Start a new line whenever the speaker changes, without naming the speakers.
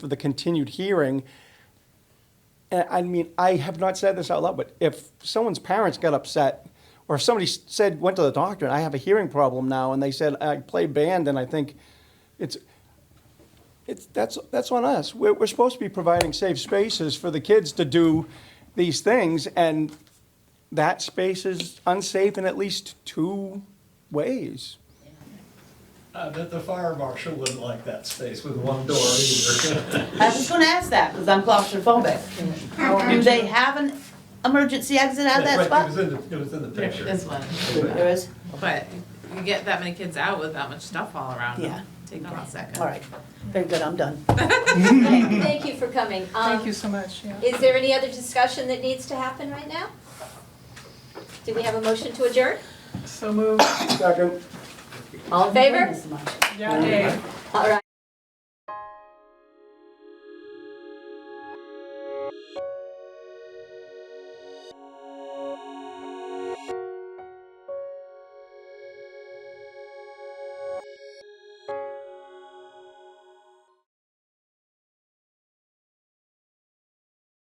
for the continued hearing. And I mean, I have not said this out loud, but if someone's parents got upset, or if somebody said, went to the doctor, and I have a hearing problem now, and they said, I play band, and I think it's, it's, that's, that's on us. We're, we're supposed to be providing safe spaces for the kids to do these things, and that space is unsafe in at least two ways.
I bet Uh, the fire marshal wouldn't like that space with one door either.
I was gonna ask that, because I'm claustrophobic. Do they have an emergency exit out of that
But It was
spot?
in the, it was in the picture.
This one,
There is,
but you get that many kids out with that much stuff all around
Yeah.
them, take them a second.
all right, very good, I'm done.
Okay, Thank you for coming.
Thank you
Um,
so much, yeah.
is there any other discussion that needs to happen right now? Do we have a motion to adjourn?
So moved.
Second.
All in favor?
Thank you so much.
Yeah, Dave.
All right.